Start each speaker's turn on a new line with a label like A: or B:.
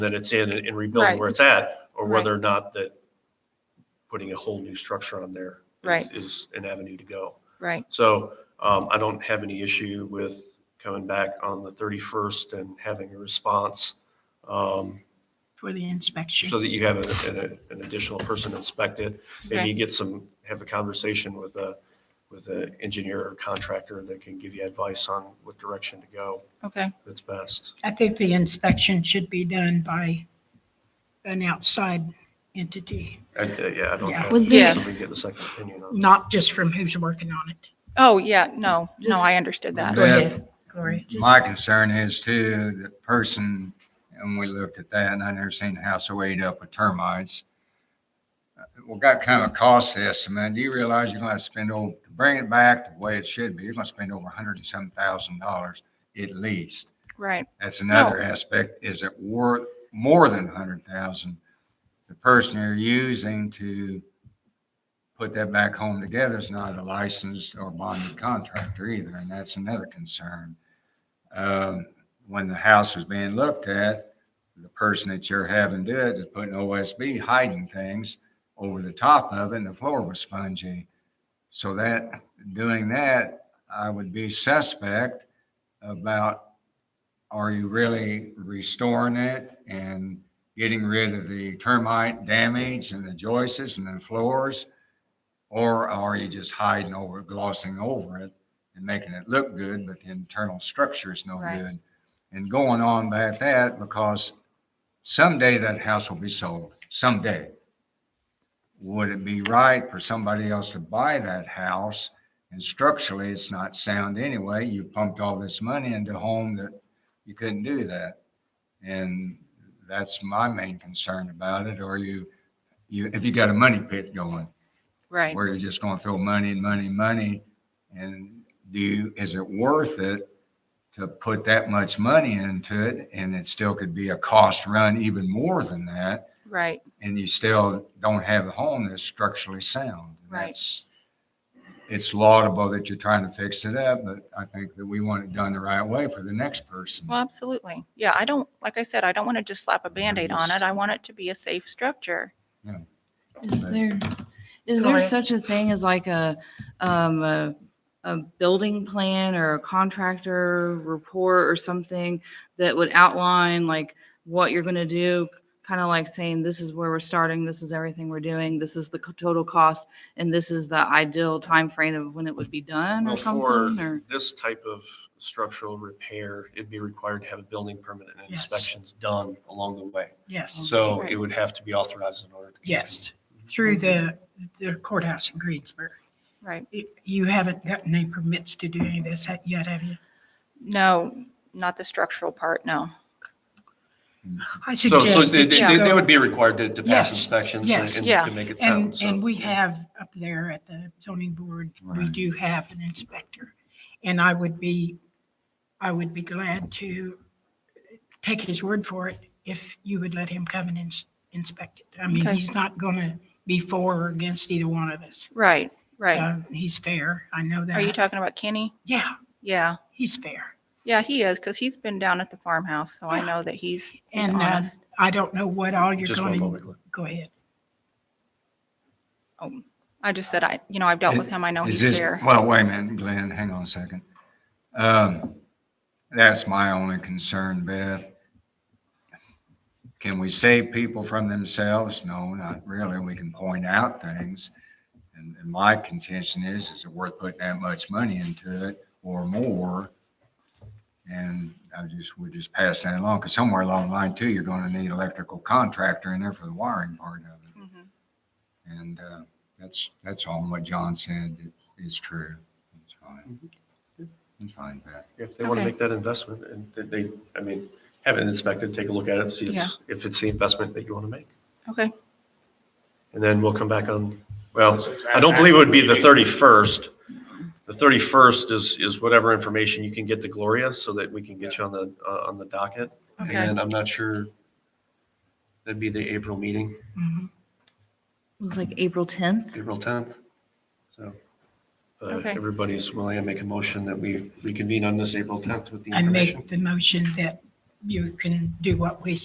A: that it's in and and rebuilding
B: Right.
A: where it's at, or
B: Right.
A: whether or not that putting a whole new structure on there is-
B: Right.
A: is an avenue to go.
B: Right,
A: So um, I don't have any issue with coming back on the 31st and having a response um,
C: for the inspection.
A: so that you have an- an an additional person inspect it. Maybe you get some, have a conversation with a, with an engineer or contractor that can give you advice on what direction to go
B: okay,
A: that's best.
C: I think the inspection should be done by an outside entity,
A: I- Yeah, I don't
C: Yeah.
A: have,
D: Would
A: somebody
D: be-
A: get a second opinion on
C: not just from who's working on it.
B: oh, yeah, no, no,
C: Just-
B: I understood that,
C: Go
E: Yeah.
C: ahead, Gloria. Just-
E: My concern is too, the person, and we looked at that, and I never seen a house so ate up with termites. Uh, We got kind of a cost estimate. Do you realize you're gonna have to spend over, to bring it back the way it should be, you're gonna spend over a hundred and some thousand dollars at least.
B: right,
E: That's another aspect. Is it worth more than a hundred thousand? The person you're using to put that back home together is not a licensed or bonded contractor either, and that's another concern. Um, when the house was being looked at, the person that you're having do it is putting OSB hiding things over the top of it, and the floor was spongy. So that, doing that, I would be suspect about are you really restoring it and getting rid of the termite damage and the joists and the floors? Or are you just hiding over, glossing over it and making it look good, but the internal structure is no
B: Right.
E: good? And going on about that, because someday that house will be sold, someday. Would it be right for somebody else to buy that house? And structurally, it's not sound anyway. You pumped all this money into a home that you couldn't do that. And that's my main concern about it. Or you, you, if you got a money pit going,
B: right,
E: where you're just gonna throw money and money and money. And do, you- is it worth it to put that much money into it? And it still could be a cost run even more than that.
B: right,
E: And you still don't have a home that's structurally sound.
B: Right.
E: That's- It's laudable that you're trying to fix it up, but I think that we want it done the right way for the next person.
B: well, absolutely, yeah, I don't, like I said, I don't want to just slap a Band-Aid on it, I want it to be a safe structure.
D: Is
E: Right.
D: there, is
C: Go
D: there
C: ahead.
D: such a thing as like a, um, a, a building plan or a contractor report or something that would outline like what you're gonna do? Kind of like saying, this is where we're starting, this is everything we're doing, this is the co- total cost, and this is the ideal time frame of when it would be done
A: Well,
D: or
A: for
D: something, or?
A: This type of structural repair, it'd be required to have a building permit and
C: Yes.
A: inspections done along the way.
C: Yes,
A: So
B: Right.
A: it would have to be authorized in order. to
C: yes, through the, the courthouse in Greensburg.
B: Right,
C: You- You haven't gotten any permits to do any of this yet, have you?
B: no, not the structural part, no,
C: I
A: continue. So,
C: suggest
A: so they,
C: that
A: they-
C: you
A: they
C: go,
A: would be required to, to pass
C: Yes,
A: inspections
C: yes.
A: and
B: Yeah.
A: and to make it sound.
C: and,
A: so-
C: and we have up there at the zoning board, we
E: Right.
C: do have an inspector. And I would be, I would be glad to take his word for it if you would let him come and ins- inspect it. I mean,
B: Okay.
C: he's not going to be for or against either one of us.
B: right, right.
C: Uh, He's fair, I know that.
B: Are you talking about Kenny?
C: Yeah,
B: Yeah,
C: he's fair.
B: yeah, he is, because he's been down at the farmhouse, so I
C: Yeah.
B: know that he's, he's
C: And uh,
B: honest.
C: I don't know what all you're
A: Just one
C: going
A: moment.
C: to,
A: Glenn.
C: go ahead.
B: I just said, I, you know, I've dealt with him, I know
E: Is
B: he's
E: this,
B: fair.
E: well, wait a minute, Glenn, hang on a second. Um, that's my only concern, Beth. Can we save people from themselves? No, not really. We can point out things. And, and my contention is, is it worth putting that much money into it or more? And I just, we just pass that along, because somewhere along the line too, you're gonna need electrical contractor in there for the wiring part of it.
B: Mhm.
E: And uh, that's, that's all what John said i- is true. It's fine. It's fine, Pat.
A: If they want to
B: Okay.
A: make that investment and that they, I mean, have it inspected, take a look at it, see it's- if it's the investment that you want to make.
B: Okay,
A: And then we'll come back on, well, I don't believe it would be the 31st. The 31st is, is whatever information you can get to Gloria so that we can get you on the, uh, on the docket. And
B: okay,
A: then I'm not sure, that'd be the April meeting,
C: Mhm.
D: Looks like April tenth?
A: April 10th. So uh,
B: Okay.
A: everybody's willing to make a motion that we reconvene on this April 10th with the
C: And
A: information.
C: make the motion that you can do what we